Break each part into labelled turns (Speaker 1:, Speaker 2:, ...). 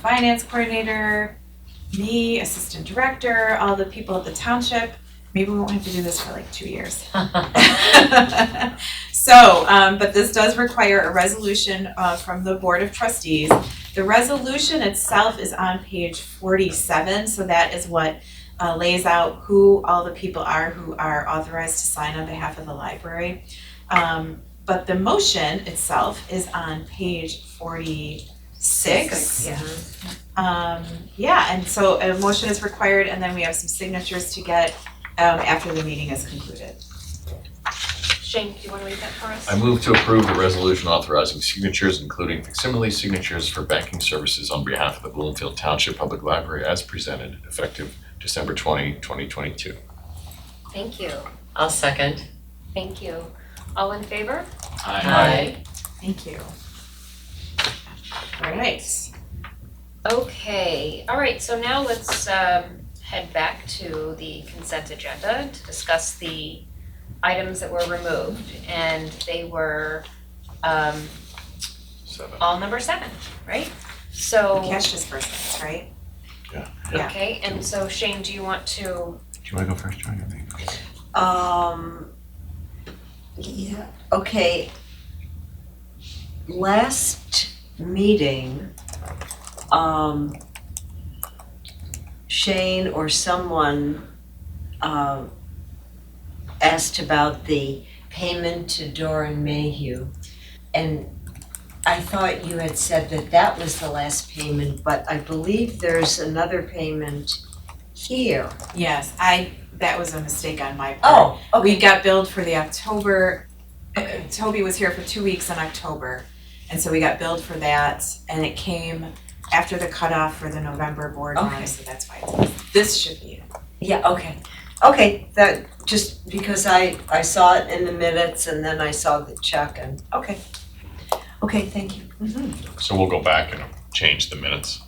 Speaker 1: finance coordinator, me, assistant director, all the people at the township. Maybe we won't have to do this for like two years. So, um, but this does require a resolution, uh, from the Board of Trustees. The resolution itself is on page forty-seven, so that is what, uh, lays out who all the people are who are authorized to sign on behalf of the library. Um, but the motion itself is on page forty-six.
Speaker 2: Six, yeah.
Speaker 1: Um, yeah, and so a motion is required and then we have some signatures to get, um, after the meeting is concluded.
Speaker 3: Shane, do you wanna read that for us?
Speaker 4: I move to approve the resolution authorizing signatures, including facsimile signatures for banking services on behalf of the Bloomfield Township Public Library as presented, effective December 20, 2022.
Speaker 2: Thank you,
Speaker 5: I'll second.
Speaker 2: thank you. All in favor?
Speaker 5: Aye.
Speaker 1: Thank you. All right,
Speaker 2: Okay, all right, so now let's um head back to the consent agenda to discuss the items that were removed. And they were um
Speaker 4: Seven.
Speaker 2: all number seven, right? So,
Speaker 1: cash disbursements, right? yeah.
Speaker 2: okay, and so Shane, do you want to,
Speaker 4: Do you want to go first, John? I think.
Speaker 3: Um, yeah, okay. Last meeting, um, Shane or someone, um, asked about the payment to Doran Mayhew. And I thought you had said that that was the last payment, but I believe there's another payment here.
Speaker 1: Yes, I, that was a mistake on my part.
Speaker 3: Oh,
Speaker 1: We got billed for the October, uh, Toby was here for two weeks in October. And so we got billed for that and it came after the cutoff for the November board
Speaker 3: Okay.
Speaker 1: meeting, so that's why it's, this should be. it.
Speaker 3: Yeah, okay. Okay, that, just because I, I saw it in the minutes and then I saw the check and, okay. Okay, thank you.
Speaker 4: So we'll go back and change the minutes.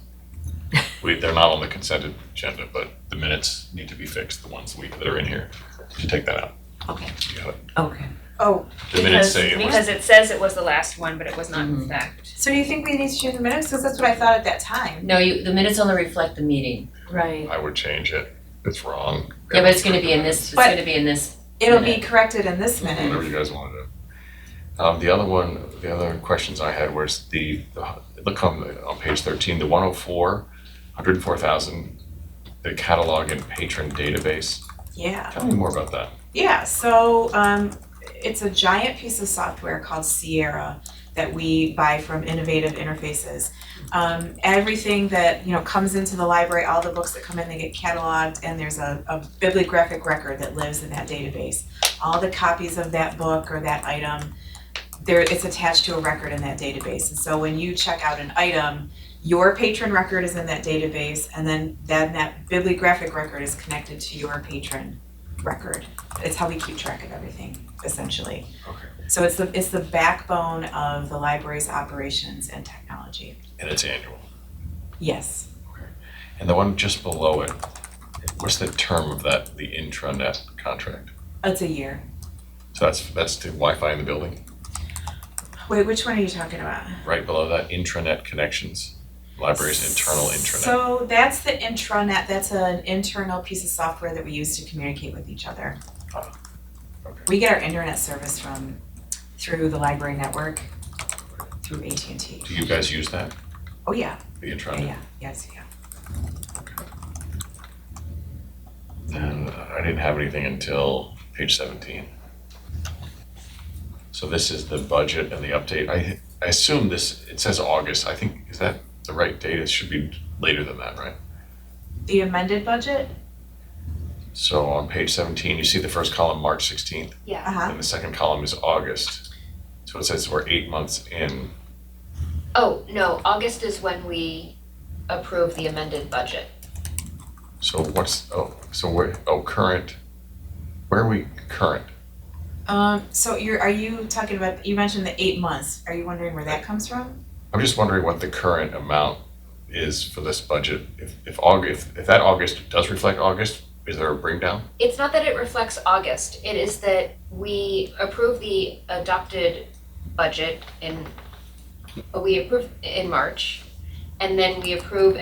Speaker 4: We, they're not on the consent agenda, but the minutes need to be fixed, the ones we, that are in here. You take that out.
Speaker 2: Okay.
Speaker 4: You got it.
Speaker 3: Okay.
Speaker 4: The minutes
Speaker 2: because,
Speaker 4: say it was
Speaker 2: because it says it was the last one, but it was not in fact.
Speaker 1: So do you think we need to change the minutes? Cause that's what I thought at that time.
Speaker 5: No, you, the minutes only reflect the meeting.
Speaker 6: Right.
Speaker 4: I would change it. It's wrong.
Speaker 5: Yeah, but it's gonna be in this, it's
Speaker 1: But-
Speaker 5: gonna be in this.
Speaker 1: It'll be corrected in this
Speaker 4: Whatever
Speaker 1: minute.
Speaker 4: you guys wanna do. Um, the other one, the other questions I had was the, the- look on, the- on page thirteen, the 104, 104,000, the catalog and patron database.
Speaker 1: Yeah.
Speaker 4: Tell me more about that.
Speaker 1: Yeah, so um, it's a giant piece of software called Sierra that we buy from Innovative Interfaces. Um, everything that you know comes into the library, all the books that come in, they get cataloged, and there's a, a bibliographic record that lives in that database. All the copies of that book or that item, there it's attached to a record in that database. And so when you check out an item, your patron record is in that database, and then then that bibliographic record is connected to your patron record it's how we keep track of everything essentially.
Speaker 4: Okay.
Speaker 1: So it's the it's the backbone of the library's operations and technology.
Speaker 4: And it's annual.
Speaker 1: Yes.
Speaker 4: And the one just below it, what's the term of that, the intranet contract?
Speaker 1: It's a year.
Speaker 4: So that's, that's the Wi-Fi in the building,
Speaker 1: Wait, which one are you talking about?
Speaker 4: right below that, intranet connections, library's internal intranet.
Speaker 1: So that's the intranet, that's an internal piece of software that we use to communicate with each other.
Speaker 4: Oh, okay.
Speaker 1: We get our internet service from through the library network, through AT&T.
Speaker 4: Do you guys use that,
Speaker 1: Oh yeah,
Speaker 4: the
Speaker 1: yeah,
Speaker 4: intranet?
Speaker 1: yeah, yes, yeah.
Speaker 4: And I didn't have anything until page seventeen. So this is the budget and the update. I, I assume this, it says August. I think, is that the right date? It should be later than that, right?
Speaker 1: The amended budget?
Speaker 4: So on page seventeen, you see the first column, March sixteenth,
Speaker 2: Yeah.
Speaker 1: Uh-huh.
Speaker 4: and the second column is August. So it says we're eight months in.
Speaker 2: Oh, no, August is when we approve the amended budget.
Speaker 4: So what's, oh, so we're, oh, current, where are we current?
Speaker 1: Um, so you're, are you talking about, you mentioned the eight months, are you wondering where that comes from?
Speaker 4: I'm just wondering what the current amount is for this budget. If, if August, if that August does reflect August, is there a bring down?
Speaker 2: It's not that it reflects August, it is that we approve the adopted budget in, we approve in March. And then we approve